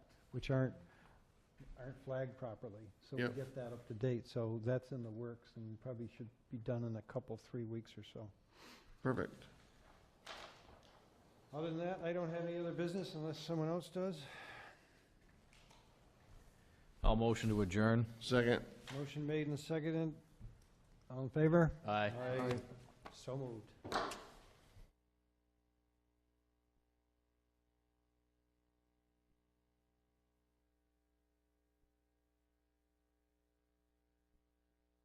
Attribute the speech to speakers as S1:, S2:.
S1: which aren't, aren't flagged properly. So we
S2: Yeah.
S1: get that up to date, so that's in the works and probably should be done in a couple, three weeks or so.
S2: Perfect.
S1: Other than that, I don't have any other business unless someone else does.
S3: I'll motion to adjourn.
S2: Second.
S1: Motion made and seconded. All in favor?
S3: Aye.
S1: So moved.